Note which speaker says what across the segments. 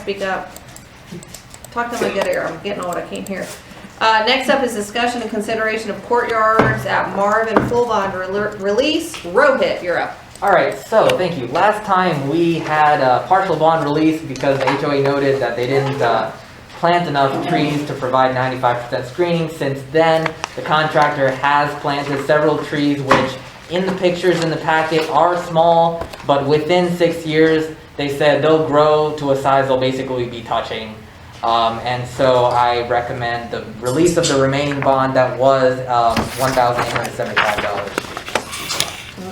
Speaker 1: Speak up. Talk till I get here, I'm getting old, I can't hear. Uh, next up is discussion and consideration of courtyards at Marvin Full Bond Rel- Release, Rohit, you're up.
Speaker 2: All right, so thank you. Last time we had a partial bond release because the HOA noted that they didn't uh, plant enough trees to provide 95% screening. Since then, the contractor has planted several trees, which in the pictures in the packet are small, but within six years, they said they'll grow to a size they'll basically be touching. Um, And so I recommend the release of the remaining bond that was um, $1,875.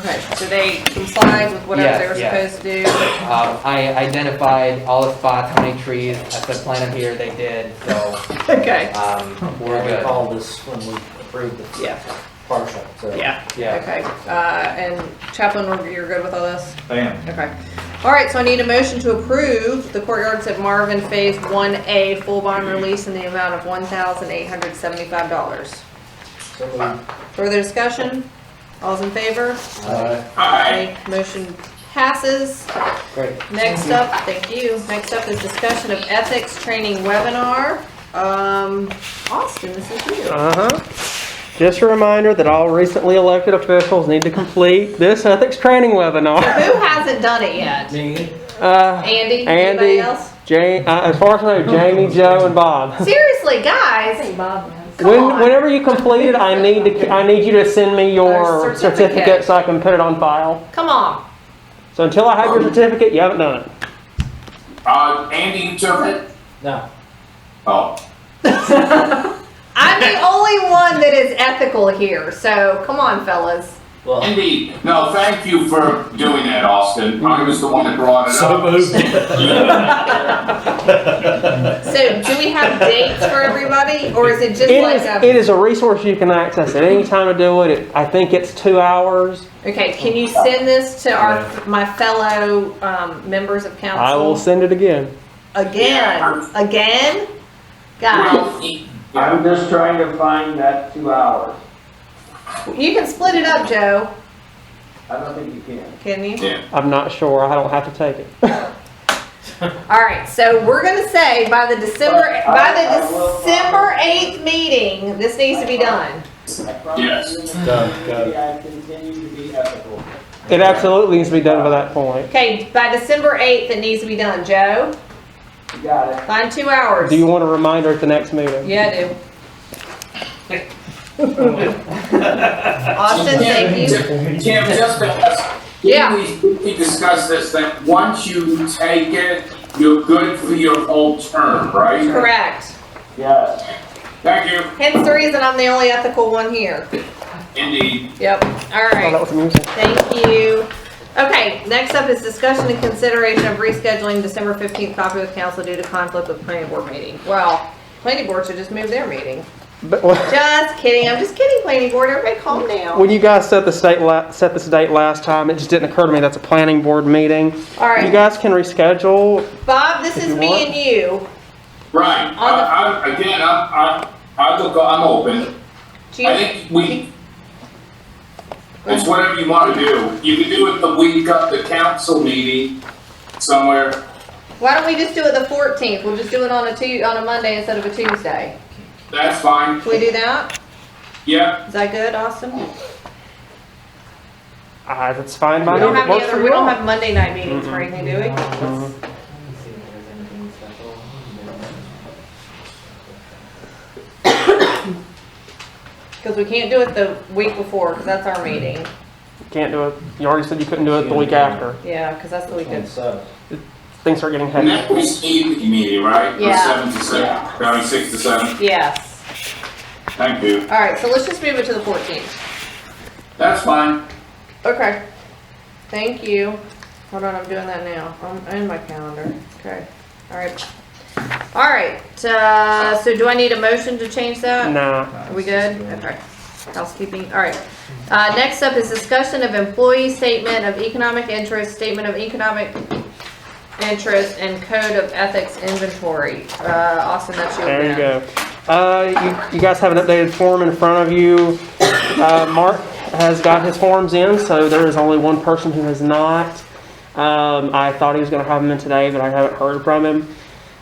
Speaker 1: Okay, so they complied with whatever they were
Speaker 2: Yes,
Speaker 1: supposed to do.
Speaker 2: Um, I identified all the spots, how many trees, I said plant them here, they did, so,
Speaker 1: Okay,
Speaker 2: um, we're
Speaker 3: We
Speaker 2: good.
Speaker 3: called this when we approved the
Speaker 1: yeah,
Speaker 3: partial, so.
Speaker 1: yeah,
Speaker 2: Yeah,
Speaker 1: okay. Uh, and Chaplain, we're- you're good with all this?
Speaker 4: I am.
Speaker 1: Okay. All right, so I need a motion to approve the courtyards at Marvin Phase 1A full bond release in the amount of $1,875.
Speaker 3: So we,
Speaker 1: Further discussion? All's in favor?
Speaker 3: uh,
Speaker 1: Aye. Motion passes.
Speaker 2: great.
Speaker 1: Next up, thank you. Next up is discussion of ethics training webinar. Um, Austin, this is you.
Speaker 5: Uh-huh. Just a reminder that all recently elected officials need to complete this ethics training webinar.
Speaker 1: Who hasn't done it yet?
Speaker 5: Uh,
Speaker 1: Andy? Anybody
Speaker 5: Andy,
Speaker 1: else?
Speaker 5: Jane, uh, as far as I know, Jamie, Joe, and Bob.
Speaker 1: Seriously, guys, come
Speaker 5: When,
Speaker 1: on.
Speaker 5: whenever you complete it, I need to, I need you to send me
Speaker 1: Our
Speaker 5: your
Speaker 1: certificate.
Speaker 5: certificate so I can put it on file.
Speaker 1: Come on.
Speaker 5: So until I have your certificate, you haven't done it.
Speaker 6: Uh, Andy, you took it?
Speaker 3: no,
Speaker 6: Oh,
Speaker 1: I'm the only one that is ethical here, so come on, fellas.
Speaker 3: well,
Speaker 6: Andy, no, thank you for doing that, Austin. I was the one that brought it up.
Speaker 1: So do we have dates for everybody, or is it just
Speaker 5: It
Speaker 1: like
Speaker 5: is,
Speaker 1: a?
Speaker 5: it is a resource you can access at any time to do it. it. I think it's two hours.
Speaker 1: Okay, can you send this to our, my fellow, um, members of council?
Speaker 5: I will send it again.
Speaker 1: Again, again?
Speaker 6: Well,
Speaker 1: Guys,
Speaker 6: e-
Speaker 7: I'm just trying to find that two hours.
Speaker 1: you can split it up, Joe,
Speaker 7: I don't think you can.
Speaker 1: can you?
Speaker 6: yeah.
Speaker 5: I'm not sure. I don't have to take it.
Speaker 1: All right, so we're gonna say by the December, by
Speaker 7: I- I
Speaker 1: the
Speaker 7: will-
Speaker 1: December eighth meeting, this needs to be done.
Speaker 7: I promise
Speaker 6: Yes.
Speaker 7: you in the
Speaker 3: Go, go.
Speaker 7: community I continue to be ethical.
Speaker 5: It absolutely needs to be done by that point.
Speaker 1: Okay, by December eighth, it needs to be done, Joe,
Speaker 7: You got it.
Speaker 1: find two hours.
Speaker 5: Do you want a reminder at the next meeting?
Speaker 1: Yeah, I do. Austin, thank you.
Speaker 6: Tim, just to ask,
Speaker 1: Yeah.
Speaker 6: can we- we discuss this, that once you take it, you're good for your whole term, right?
Speaker 1: Correct.
Speaker 7: Yes.
Speaker 6: Thank you,
Speaker 1: Hence the reason I'm the only ethical one here.
Speaker 6: Andy.
Speaker 1: Yep, all
Speaker 5: Oh, that
Speaker 1: right,
Speaker 5: was amusing.
Speaker 1: thank you. Okay, next up is discussion and consideration of rescheduling December 15th coffee with council due to conflict with planning board meeting. Well, planning board should just move their meeting.
Speaker 5: But when-
Speaker 1: Just kidding, I'm just kidding, planning board, everybody calm down.
Speaker 5: when you guys set the state la- set this date last time, it just didn't occur to me that's a planning board meeting.
Speaker 1: All
Speaker 5: You
Speaker 1: right,
Speaker 5: guys can reschedule.
Speaker 1: Bob, this is
Speaker 5: you
Speaker 1: me
Speaker 5: want-
Speaker 1: and you.
Speaker 6: Right, I, I, again, I, I, I look, I'm open.
Speaker 1: Do
Speaker 6: I
Speaker 1: you,
Speaker 6: think we, it's whatever you want to do. You can do it the week of the council meeting somewhere.
Speaker 1: why don't we just do it the 14th? We'll just do it on a Tu, on a Monday instead of a Tuesday.
Speaker 6: That's fine.
Speaker 1: Can we do that?
Speaker 6: Yeah,
Speaker 1: Is that good, Austin?
Speaker 5: Ah, that's fine by
Speaker 1: We
Speaker 5: me.
Speaker 1: don't
Speaker 5: It
Speaker 1: have any
Speaker 5: works for
Speaker 1: other, we
Speaker 5: you all.
Speaker 1: don't have Monday night meetings
Speaker 5: Mm-hmm.
Speaker 1: or anything, do we?
Speaker 2: Let's- let me see if there's anything special.
Speaker 1: Because we can't do it the week before, because that's our meeting.
Speaker 5: Can't do it. You already said you couldn't do it the week after.
Speaker 1: Yeah, because that's the week
Speaker 3: and
Speaker 1: of.
Speaker 3: so,
Speaker 5: Things are getting heavy.
Speaker 6: and that was evening meeting, right? From
Speaker 1: Yeah.
Speaker 6: Seven to seven, probably six to seven.
Speaker 1: Yes.
Speaker 6: Thank you.
Speaker 1: All right, so let's just move it to the 14th.
Speaker 6: That's fine.
Speaker 1: Okay. Thank you. Hold on, I'm doing that now. I'm in my calendar. Okay. All right. All right, uh, so do I need a motion to change that?
Speaker 5: Nah.
Speaker 1: Are we good? Okay. Housekeeping, all right. Uh, next up is discussion of employee statement of economic interest, statement of economic interest, and code of ethics inventory. Uh, Austin, that's your.
Speaker 5: There you
Speaker 1: man.
Speaker 5: go. Uh, you, you guys have an updated form in front of you. Uh, Mark has got his forms in, so there is only one person who has not. Um, I thought he was going to have them in today, but I haven't heard from him.